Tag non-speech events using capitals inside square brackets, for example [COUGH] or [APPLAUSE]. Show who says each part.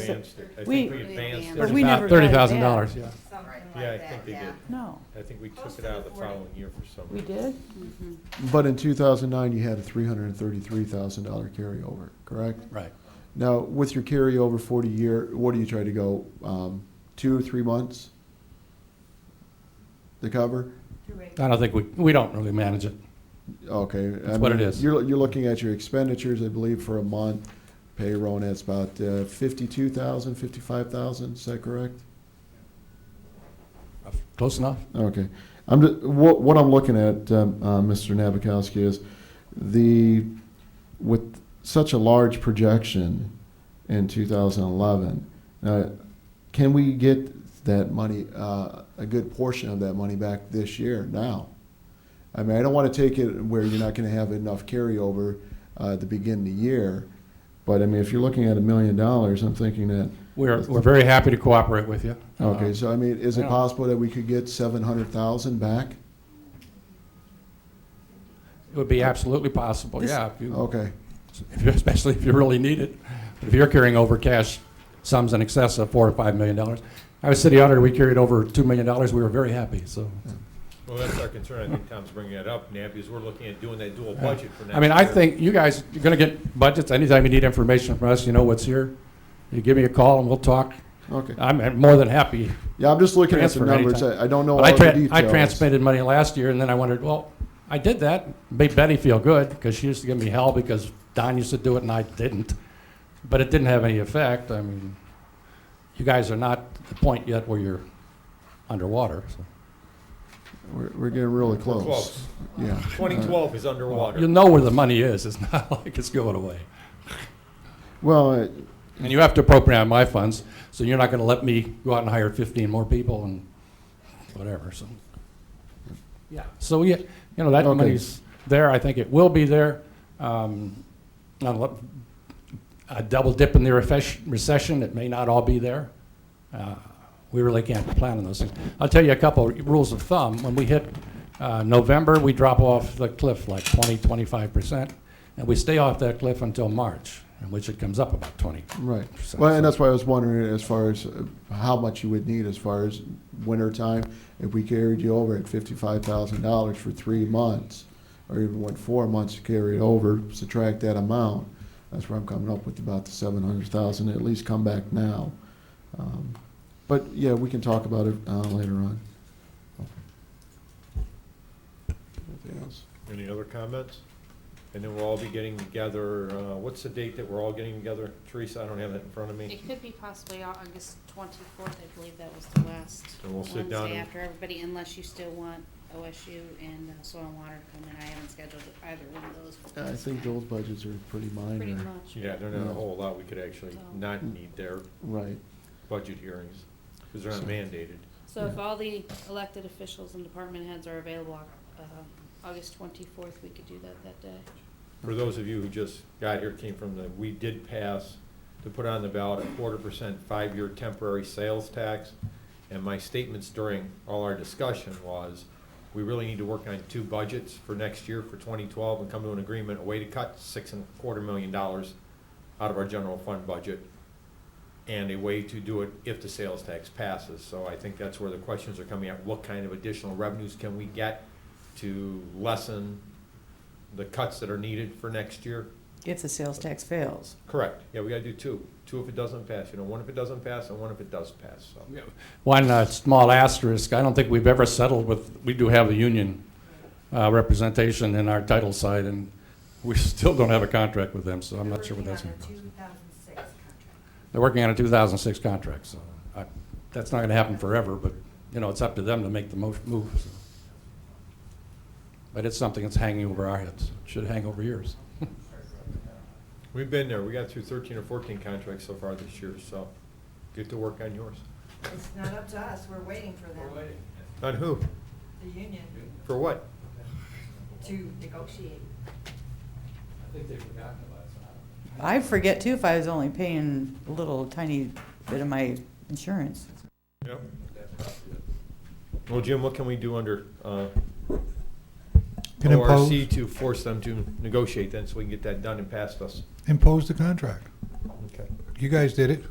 Speaker 1: advanced it. I
Speaker 2: we-
Speaker 1: think we advanced it.
Speaker 3: But
Speaker 2: we never
Speaker 4: About
Speaker 2: got it
Speaker 4: thirty
Speaker 2: back.
Speaker 4: thousand dollars, yeah.
Speaker 3: something like that,
Speaker 1: Yeah, I think they
Speaker 3: yeah.
Speaker 1: did.
Speaker 2: No,
Speaker 1: I think we took
Speaker 3: Close
Speaker 1: it
Speaker 3: to
Speaker 1: out of
Speaker 3: the
Speaker 1: the
Speaker 3: 40.
Speaker 1: following year for some
Speaker 2: we
Speaker 1: reason.
Speaker 2: did?
Speaker 5: But in 2009, you had a $333,000 carryover, correct?
Speaker 4: Right.
Speaker 5: Now, with your carryover 40 year, what do you try to go, um, two or three months? The cover?
Speaker 4: I don't think we, we don't really manage it.
Speaker 5: Okay.
Speaker 4: That's what it is.
Speaker 5: You're, you're looking at your expenditures, I believe, for a month, payroll, and that's about uh, 52,000, 55,000, is that correct?
Speaker 4: Close enough?
Speaker 5: Okay. I'm, ju- what, what I'm looking at, um, uh, Mr. Nabokowski, is the, with such a large projection in 2011, uh, can we get that money, uh, a good portion of that money back this year now? I mean, I don't want to take it where you're not going to have enough carryover uh, to begin the year, but I mean, if you're looking at a million dollars, I'm thinking that,
Speaker 4: We're, we're very happy to cooperate with you. Uh,
Speaker 5: okay, so I mean, is it
Speaker 4: Uh-huh. Yeah.
Speaker 5: possible that we could get 700,000 back?
Speaker 4: It would be absolutely possible,
Speaker 2: This-
Speaker 4: yeah, if you,
Speaker 5: Okay.
Speaker 4: if you- [LAUGHS] especially if you really need it. But If you're carrying over cash sums in excess of four or five million dollars. I was city auditor, we carried over two million dollars, we were very happy, so.
Speaker 1: Well, that's our concern. I think Tom's bringing that up, Nab, because we're looking at doing that dual budget for next
Speaker 4: I mean, I
Speaker 1: year.
Speaker 4: think you guys, you're gonna get budgets, anytime you need information from us, you know what's here. You give me a call and we'll talk.
Speaker 5: Okay.
Speaker 4: I'm more than happy.
Speaker 5: Yeah, I'm just looking at the
Speaker 4: Transfer anytime.
Speaker 5: numbers. I, I don't know all
Speaker 4: But I,
Speaker 5: the
Speaker 4: tra-
Speaker 5: details.
Speaker 4: I transmitted money last year, and then I wondered, well, I did that, made Betty feel good, because she used to give me hell because Don used to do it and I didn't. But it didn't have any effect. I mean, you guys are not at the point yet where you're underwater. so.
Speaker 5: We're, we're getting really close.
Speaker 1: Close.
Speaker 5: Yeah. Uh,
Speaker 1: 2012 is
Speaker 4: You
Speaker 1: underwater.
Speaker 4: know where the money is. It's not [LAUGHS] like it's going away.
Speaker 5: Well, uh,
Speaker 4: And you have to appropriate my funds, so you're not going to let me go out and hire 15 more people and whatever, so. Yeah, so, yeah, you know, that
Speaker 5: Okay.
Speaker 4: money's there, I think it will be there. Um, not a lot- A double dip in the refesh- recession, it may not all be there. Uh, We really can't plan on those things. I'll tell you a couple of rules of thumb. When we hit uh, November, we drop off the cliff like 20, 25%, and we stay off that cliff until March, in which it comes up about 20,
Speaker 5: right.
Speaker 4: So-
Speaker 5: Well, and that's why I was wondering as far as uh, how much you would need as far as winter time. If we carried you over at fifty-five thousand dollars for three months, or even went four months to carry it over, subtract that amount. That's where I'm coming up with about the seven hundred thousand. At least come back now. Um, but yeah, we can talk about it uh, later on. Anything else?
Speaker 1: Any other comments? And then we'll all be getting together, uh, what's the date that we're all getting together? Teresa, I don't have that in front of me.
Speaker 3: It could be possibly Au- August twenty-fourth, I believe that was the last
Speaker 1: And we'll sit down
Speaker 3: Wednesday
Speaker 1: and-
Speaker 3: after everybody, unless you still want OSU and uh, Soil and Water to come in. I haven't scheduled either one of those. for
Speaker 5: I
Speaker 3: this
Speaker 5: think
Speaker 3: time.
Speaker 5: those budgets are pretty
Speaker 3: Pretty
Speaker 5: minor.
Speaker 3: much.
Speaker 1: Yeah, they're not a whole lot. We could actually not need their
Speaker 5: Right.
Speaker 1: budget hearings, because they're not mandated.
Speaker 3: So if all the elected officials and department heads are available, uh, August twenty-fourth, we could do that that day.
Speaker 1: For those of you who just got here, came from the, we did pass to put on the ballot a quarter percent five-year temporary sales tax. And my statements during all our discussion was, we really need to work on two budgets for next year, for twenty twelve, and come to an agreement, a way to cut six and a quarter million dollars out of our general fund budget, and a way to do it if the sales tax passes. So I think that's where the questions are coming at, what kind of additional revenues can we get to lessen the cuts that are needed for next year?
Speaker 6: If the sales tax fails.
Speaker 1: Correct, yeah, we gotta do two, two if it doesn't pass, you know, one if it doesn't pass and one if it does pass, so.
Speaker 4: One uh, small asterisk, I don't think we've ever settled with, we do have a union uh, representation in our title side, and we [LAUGHS] still don't have a contract with them, so I'm not sure what that's going to cost. They're working on a 2006 contract, so I- that's not going to happen forever, but, you know, it's up to them to make the mo- move. so. But it's something that's hanging over our heads, should hang over yours. [LAUGHS]
Speaker 1: We've been there, we got through thirteen or fourteen contracts so far this year, so get to work on yours.
Speaker 7: It's not up to us, we're waiting for them,
Speaker 1: On who?
Speaker 7: the union,
Speaker 1: For what?
Speaker 7: to negotiate.
Speaker 6: I forget too if I was only paying a little tiny bit of my insurance.
Speaker 1: Yep. Well, Jim, what can we do under, uh,
Speaker 8: Can impose,
Speaker 1: ORC to force them to negotiate then, so we can get that done and passed us?
Speaker 8: impose the contract.
Speaker 1: Okay.
Speaker 8: You guys did it.